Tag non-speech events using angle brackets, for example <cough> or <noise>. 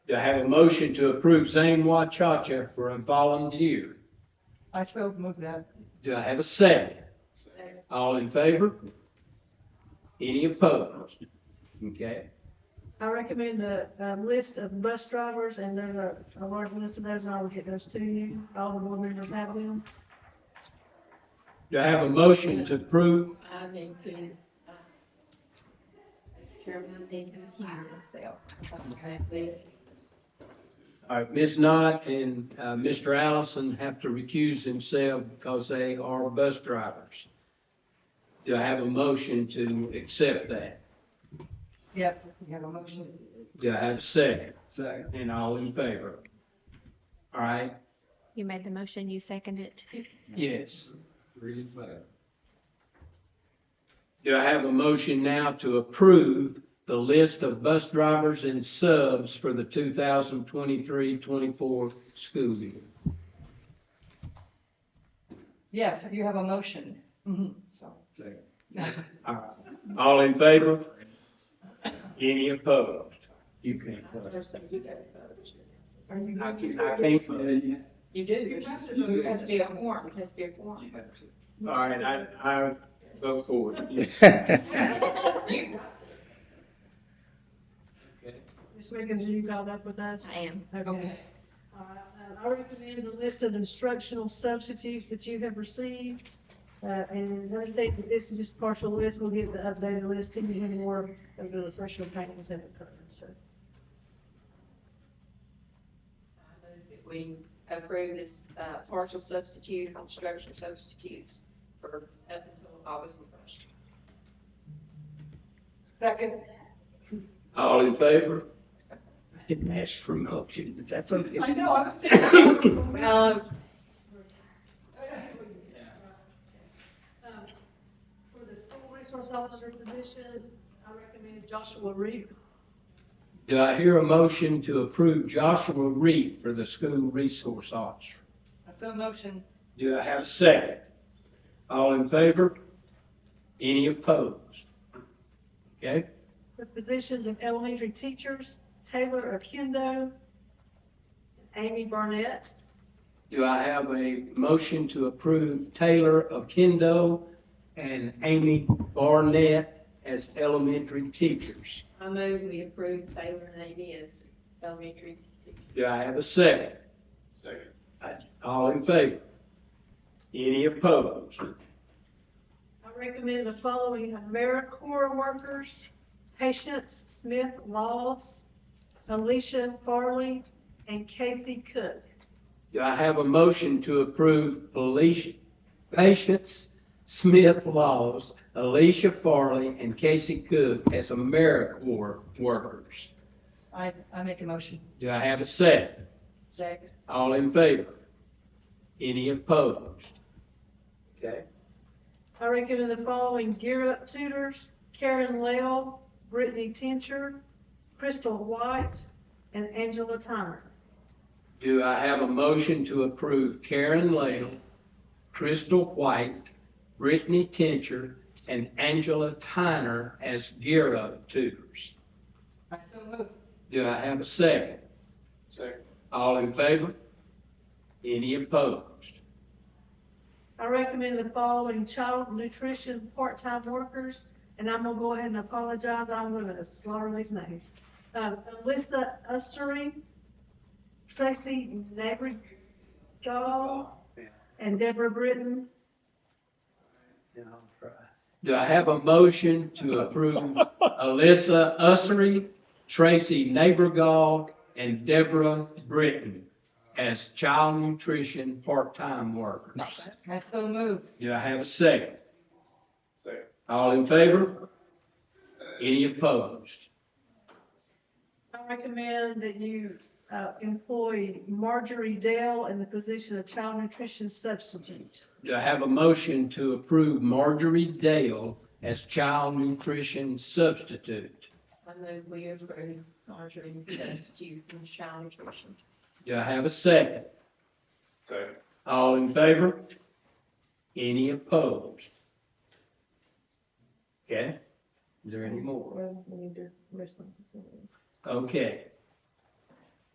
Do I have a motion to approve Zane Wachacha for a volunteer? I so move that. Do I have a second? All in favor? Any opposed? Okay, I recommend the, um, list of bus drivers, and there's a, a large list of those, and I will get those to you. All the board members have them. do I have a motion to approve? I need to, uh, Chairman, I need to recuse myself. Okay, please. All right, Ms. uh, Knott and, uh, Mr. Allison have to recuse themselves because they are bus drivers. Do I have a motion to accept that? Yes, we have a motion. Do I have a second? Second. And all in favor? All right, You made the motion, you seconded it. yes. Do I have a motion now to approve the list of bus drivers and subs for the 2023-24 school year? Yes, you have a motion. Mhm, So. All right. All in favor? Any opposed? You can't. vote. There's some you gotta vote. Are you I going can, to- I can't. vote. You do. You have to vote. It has to be a form, it has to be a form. All right, I, I vote for it. <laughs> You- This weekend, you got up with us. I am. Okay. All right, uh, I recommend the list of instructional substitutes that you have received. Uh, and understand that this is just partial list. We'll get the updated list to you in more of the professional trainings that occur, so. We approve this uh, partial substitute, instructional substitutes for up until August the first. Second. All in favor? I Didn't ask for a motion, but that's okay. I know, <laughs> I was saying. Well, Um, For the school resource officer position, I recommend Joshua Reed. Do I hear a motion to approve Joshua Reed for the school resource officer? So motion. Do I have a second? All in favor? Any opposed? Okay, The positions of elementary teachers, Taylor Akindo, Amy Barnett. do I have a motion to approve Taylor Okendo and Amy Barnett as elementary teachers? I move we approve Taylor and Amy as elementary. Do I have a second? Second. All in favor? Any opposed? I recommend the following AmeriCorps workers, Patience Smith Laws, Alicia Farley, and Casey Cook. Do I have a motion to approve Alicia, Patience Smith Laws, Alicia Farley, and Casey Cook as AmeriCorps workers? I, I make a motion. Do I have a second? Second. All in favor? Any opposed? Okay, I recommend the following Gear Up tutors, Karen Lell, Brittany Tincher, Crystal White, and Angela Tyner. do I have a motion to approve Karen Lael, Crystal White, Brittany Tincher, and Angela Tyner as Gear Up tutors? I so move. Do I have a second? Second. All in favor? Any opposed? I recommend the following child nutrition part-time workers, and I'm gonna go ahead and apologize, I'm gonna slaughter these names. Um, Alyssa Ussery, Tracy Nabrigal, and Deborah Britton. Do I have a motion to approve Alyssa Ussery, Tracy Neighborgall, and Deborah Britton as child nutrition part-time workers? I so move. Do I have a second? Second. All in favor? Any opposed? I recommend that you, uh, employ Marjorie Dale in the position of child nutrition substitute. Do I have a motion to approve Marjorie Dale as child nutrition substitute? I move we approve Marjorie as substitute in child nutrition. Do I have a second? Second. All in favor? Any opposed? Okay, is there any more? Well, we need to list them. Okay,